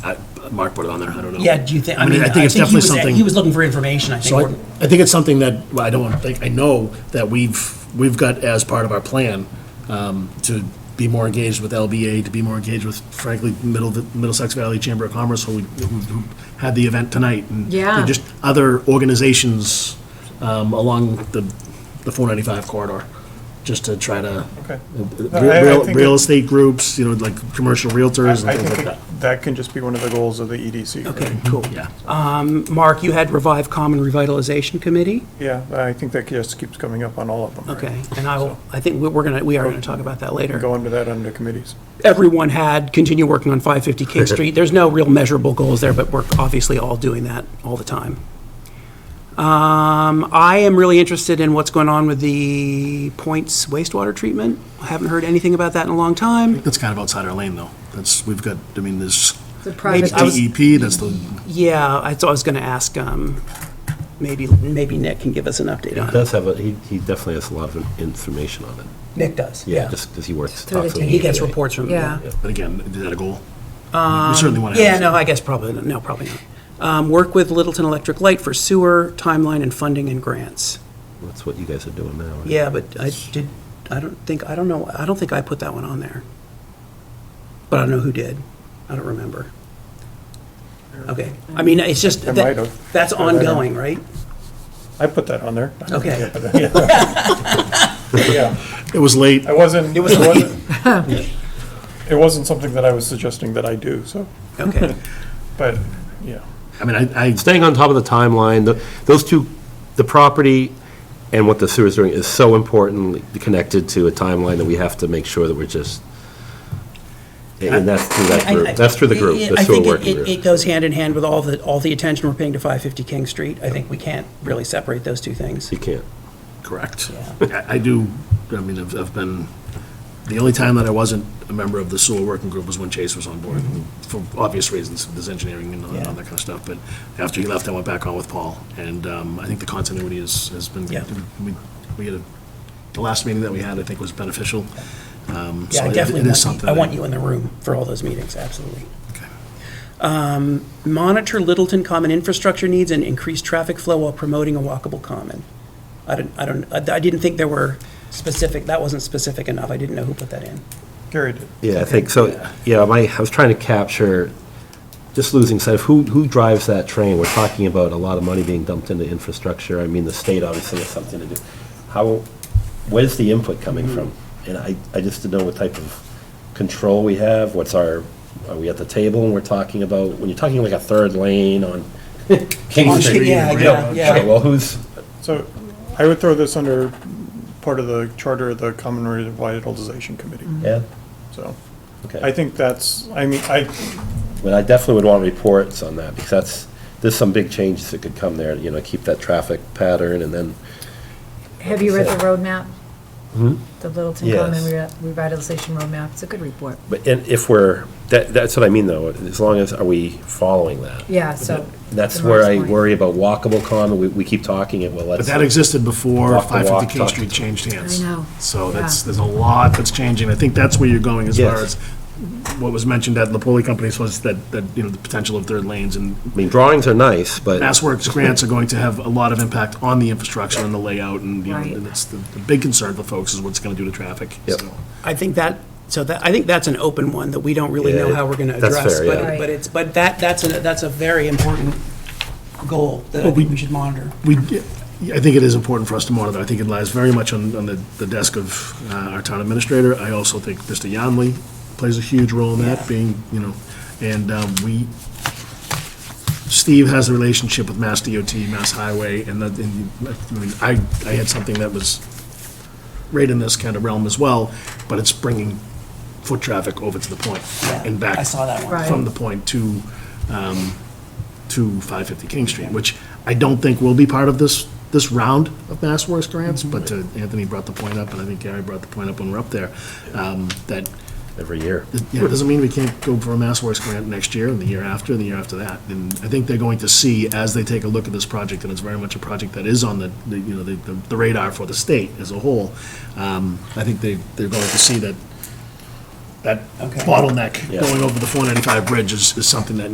Mark put it on there, I don't know. Yeah, do you think, I I mean, mean, I I think think it's he definitely was, something- he was looking for information, I think. So I, We're- I think it's something that, well, I don't want to think, I know that we've, we've got as part of our plan um, to be more engaged with LBA, to be more engaged with frankly, Middle, Middlesex Valley Chamber of Commerce, who, who who had the event tonight. and- Yeah. And just other organizations um, along the, the 495 corridor, just to try to. Okay. No, I- I Uh, Real, think real it- estate groups, you know, like commercial realtors I and things think like that- that. that can just be one of the goals of the E EDC. right? Okay. Cool. Yeah. Mark, you had Revive Common Revitalization Committee? Yeah, I think that just keeps coming up on all of them. right? Okay, and I will, I think we- we're gonna, we are gonna talk about that later. Go under that under committees. everyone had, continue working on 550 King Street. There's no real measurable goals there, but we're obviously all doing that all the time. Um, I am really interested in what's going on with the Points wastewater treatment. I haven't heard anything about that in a long time. That's kind of outside our lane, though. That's, we've got, I mean, there's The private, DEP, that's the, Yeah, I so I was gonna ask, um, maybe, maybe Nick can give us an update He on it. does have, a he he definitely has a lot of information on it. Nick does, Yeah, just because he works. Through the talks to He gets DEA. reports from, yeah. but again, is that a goal? We certainly want to. Um, Yeah, no, I guess probably, not. no, probably not. Um, Work with Littleton Electric Light for sewer, timeline and funding and grants. That's what you guys are doing now. right? Yeah, but I did, I don't think, I don't know, I don't think I put that one on there. But I don't know who did. I don't remember. Okay, I mean, it's just, I might that- have. that's I might have. ongoing, right? I put that on there. Okay. Yeah, It was late. I wasn't, it wasn't, it wasn't something that I was suggesting that I do, so, Okay, but, yeah. I mean, I, I, Staying on top of the timeline, the- those two, the property and what the sewer's doing is so importantly connected to a timeline that we have to make sure that we're just, and that's through that I- I- group, that's through the group, it- it- the I sewer think it- working it- It group. goes hand in hand with all the, all the attention we're paying to 550 King Street. I think we can't really separate those two things. You can't. correct. I I do, I mean, I've, I've been, the only time that I wasn't a member of the sewer working group was when Chase was on board, for obvious reasons, there's engineering and all that all that kind of stuff, but after he left, I went back on with Paul, and um, I think the continuity is, has been, Yeah. we, we had, a- the last meeting that we had, I think, was beneficial. Um, so Yeah, I it- definitely it is want, you- something I that- want you in the room for all those meetings, absolutely. Okay. Um, Monitor Littleton common infrastructure needs and increase traffic flow while promoting a walkable common. I don't, I don't, I I didn't think there were specific, that wasn't specific enough. I didn't know who put that in. Gary did. Yeah, I think, so, yeah, my, I was trying to capture, just losing sight of who, who drives that train? We're talking about a lot of money being dumped into infrastructure. I mean, the state obviously has something to do. How, where's the input coming Hmm. from? And I, I just didn't know what type of control we have, what's our, are we at the table and we're talking about, when you're talking like a third lane on King On Street? Street, yeah, you know, yeah, yeah. okay, Well, who's, So I would throw this under part of the charter of the Common Revitalization Committee, yeah, so. okay. I think that's, I mean, I, But I definitely would want reports on that, because that's, there's some big changes that could come there, you know, keep that traffic pattern, and then, Have you read the roadmap? The Littleton Hmm? Yes. Common Re- Revitalization Roadmap, it's a good report. but and if we're, that, that's what I mean, though, as long as, are we following that? Yeah, so. That's to where I Mark's point. worry about walkable common, we, we keep talking it, well, But let's. that existed before Walk the walk, 550 King talk the Street changed hands. I know. So Yeah. that's, there's a lot that's changing. I think that's where you're going as far as Yes. what was mentioned at the Napoli Companies was that, that, you know, the potential of third lanes and I mean, drawings are nice, but. Mass Works grants are going to have a lot of impact on the infrastructure and the layout and, you know, Right. and it's the, the big concern for folks is what it's going to do to traffic. Yep. So- I think that, so that, I think that's an open one that we don't really know Yeah, how we're going to that's address. fair, but- yeah. But it's, but that, that's, a that's a very important goal that I Well, we- think we should monitor. We, I think it is important for us to monitor. I think it lies very much on, on the, the desk of uh, our town administrator. I also think Mr. Yonley plays a huge role in that, being, you know, and um, we, Steve has a relationship with Mass DOT, Mass Highway, and that, and, you- I mean, I, I had something that was right in this kind of realm as well, but it's bringing foot traffic over to the point and back. I saw that one. Right. From the point to, um, to 550 King Street, which I don't think will be part of this, this round of Mass Works grants, but uh, Mm-hmm. Anthony brought the point up, and I think Gary brought the point up when we we're up there, um, that, Every year. yeah, it doesn't mean we can't go for a Mass Works grant next year, and the year after, and the year after that. And I think they're going to see, as they take a look at this project, and it's very much a project that is on the, the, you know, the the radar for the state as a whole, um, I think they, they're going to see that, that Okay. bottleneck Yeah. going over the 495 bridge is, is something that